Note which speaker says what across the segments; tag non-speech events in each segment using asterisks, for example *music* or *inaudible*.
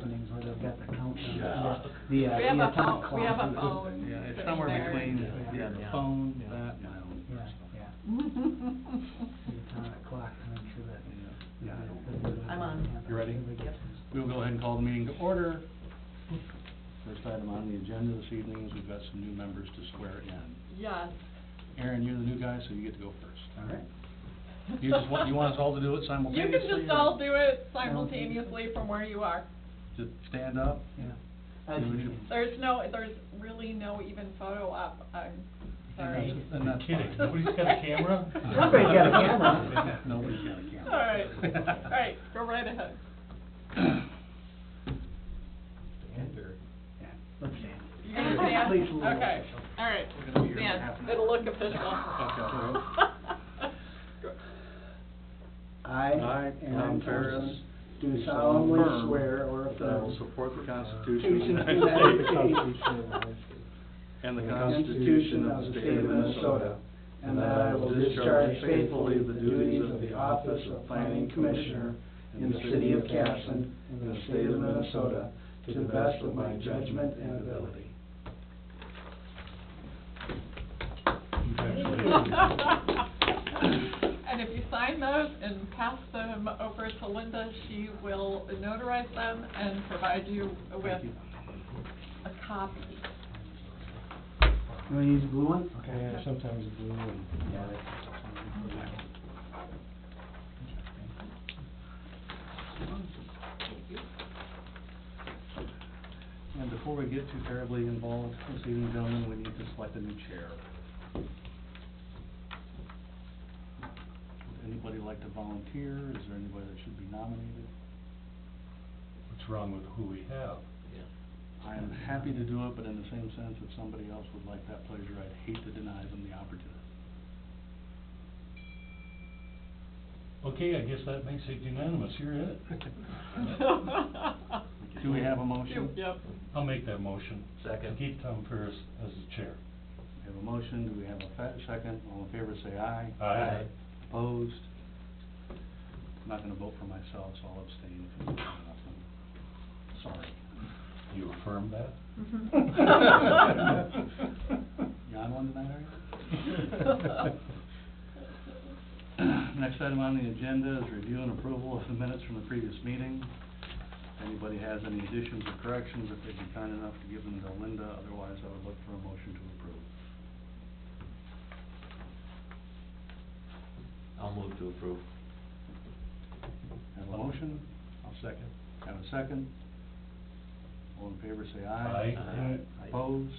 Speaker 1: openings where they've got the countdown.
Speaker 2: Yeah.
Speaker 1: The, uh,
Speaker 3: We have
Speaker 1: the
Speaker 3: a
Speaker 1: atomic
Speaker 3: phone-
Speaker 1: clock.
Speaker 3: we have a
Speaker 1: is-
Speaker 3: phone.
Speaker 2: Yeah, it's
Speaker 3: Sitting
Speaker 2: somewhere
Speaker 3: there.
Speaker 2: between, yeah, the
Speaker 1: Yeah.
Speaker 2: phone,
Speaker 1: Yeah.
Speaker 2: that,
Speaker 1: Yeah.
Speaker 2: my own
Speaker 1: Yeah,
Speaker 2: personal.
Speaker 1: yeah, the atomic clock to make sure that.
Speaker 2: Yeah.
Speaker 3: I'm on.
Speaker 2: You ready?
Speaker 3: Yep.
Speaker 2: We'll go ahead and call the meeting to order. First item on the agenda this evening is we've got some new members to swear in.
Speaker 3: Yes.
Speaker 2: Aaron, you're the new guy, so you get to go first.
Speaker 1: All right.
Speaker 2: You just want, you want us all to do it
Speaker 3: You
Speaker 2: simultaneously?
Speaker 3: can just
Speaker 2: or
Speaker 3: all do it simultaneously from where you are.
Speaker 2: Just stand up?
Speaker 1: Yeah.
Speaker 2: Do we do-
Speaker 3: There's no, there's really no even photo op, I'm sorry.
Speaker 2: And that's- and that's
Speaker 4: Kidding.
Speaker 2: fine.
Speaker 4: Nobody's got
Speaker 3: *laughs*
Speaker 4: a camera?
Speaker 1: Somebody's got a camera.
Speaker 2: *laughs* Nobody's got a
Speaker 3: All
Speaker 2: camera.
Speaker 3: right, all right, go right ahead.
Speaker 1: Yeah, Let's stand.
Speaker 3: You're gonna stand?
Speaker 1: Please, Lou.
Speaker 3: Okay, all right,
Speaker 2: We're gonna be here in half an hour.
Speaker 3: stand, it'll look official.
Speaker 2: Okay.
Speaker 3: *laughs*
Speaker 1: I.
Speaker 2: I, Tom
Speaker 1: Aaron
Speaker 2: Ferris.
Speaker 1: Thompson, Do solemnly
Speaker 2: affirm
Speaker 1: swear or
Speaker 2: That I will
Speaker 1: affirm.
Speaker 2: support the Constitution of
Speaker 1: Constitution
Speaker 2: the
Speaker 1: of the
Speaker 2: United States.
Speaker 1: United States.
Speaker 2: And the
Speaker 1: and
Speaker 2: Constitution of the State of Minnesota.
Speaker 1: And that I will discharge faithfully the duties of the office of planning commissioner in the city of Casson, in the state of Minnesota, to the best of my judgment and ability.
Speaker 3: *laughs* And if you sign those and pass them over to Linda, she will notarize them and provide you with a copy.
Speaker 1: You wanna use the blue one?
Speaker 4: Yeah, sometimes blue and.
Speaker 2: And before we get too terribly involved this evening, gentlemen, we need to select a new chair. Would anybody like to volunteer? Is there anybody that should be nominated?
Speaker 4: What's wrong with who we have?
Speaker 2: I am happy to do it, but in the same sense, if somebody else would like that pleasure, I'd hate to deny them the opportunity.
Speaker 4: Okay, I guess that makes it unanimous, you're it.
Speaker 2: Do we have a motion? *laughs*
Speaker 3: *laughs* Yep.
Speaker 4: I'll make that motion.
Speaker 2: Second.
Speaker 4: To keep Tom Ferris as the chair.
Speaker 2: We have a motion, do we have a fa- second? All in favor, say aye.
Speaker 4: Aye. Aye.
Speaker 2: Opposed? I'm not gonna vote for myself, so I'll abstain from the nomination. Sorry.
Speaker 4: You affirm that?
Speaker 3: Mm-hmm.
Speaker 4: *laughs*
Speaker 3: *laughs*
Speaker 2: You on one tonight, are you? *clears throat* Next item on the agenda is review and approval of the minutes from the previous meeting. If anybody has any additions or corrections, if they'd be kind enough to give them to Linda, otherwise I would look for a motion to approve.
Speaker 5: I'll move to approve.
Speaker 2: Have a motion? I'll second. Have a second? All in favor, say aye.
Speaker 4: Aye.
Speaker 5: Aye.
Speaker 2: Opposed?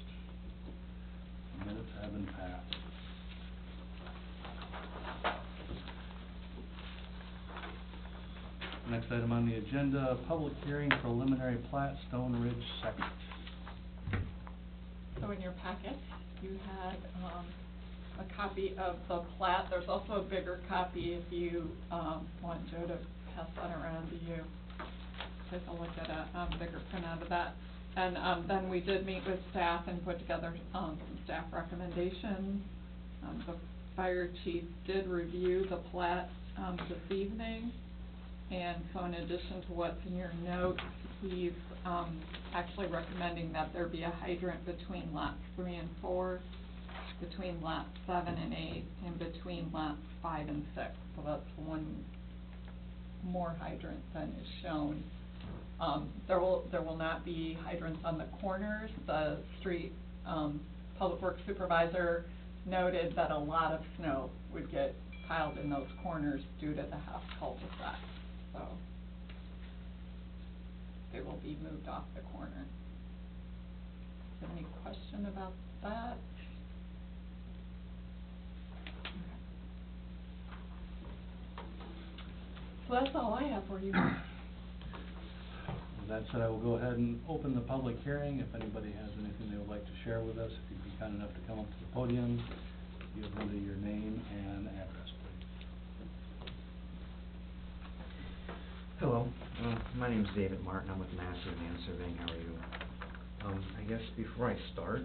Speaker 2: Minutes have been passed. Next item on the agenda, public hearing preliminary plat, Stone Ridge Second.
Speaker 3: So in your packet, you had, um, a copy of the plat. There's also a bigger copy if you, um, want Joe to pass that around to you. Take a look at a, um, bigger printout of that. And, um, then we did meet with staff and put together, um, some staff recommendations. Um, the fire chief did review the plat, um, this evening. And so in addition to what's in your notes, he's, um, actually recommending that there be a hydrant between lots three and four, between lots seven and eight, and between lots five and six. So that's one more hydrant than is shown. Um, there will, there will not be hydrants on the corners. The street, um, public works supervisor noted that a lot of snow would get piled in those corners due to the house cul-de-sac, so they will be moved off the corner. Is there any question about that? So that's all I have for you.
Speaker 2: With that said, I will go ahead and open the public hearing. If anybody has anything they would like to share with us, if you'd be kind enough to come up to the podium, give Linda your name and address, please.
Speaker 6: Hello, uh, my name's David Martin, I'm with Master Man Surveying, how are you? Um, I guess before I start,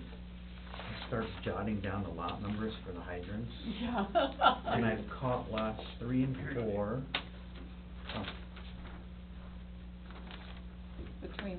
Speaker 6: I start jotting down the lot numbers for the hydrants.
Speaker 3: Yeah.
Speaker 6: And I've caught lots three and four. Oh,
Speaker 3: between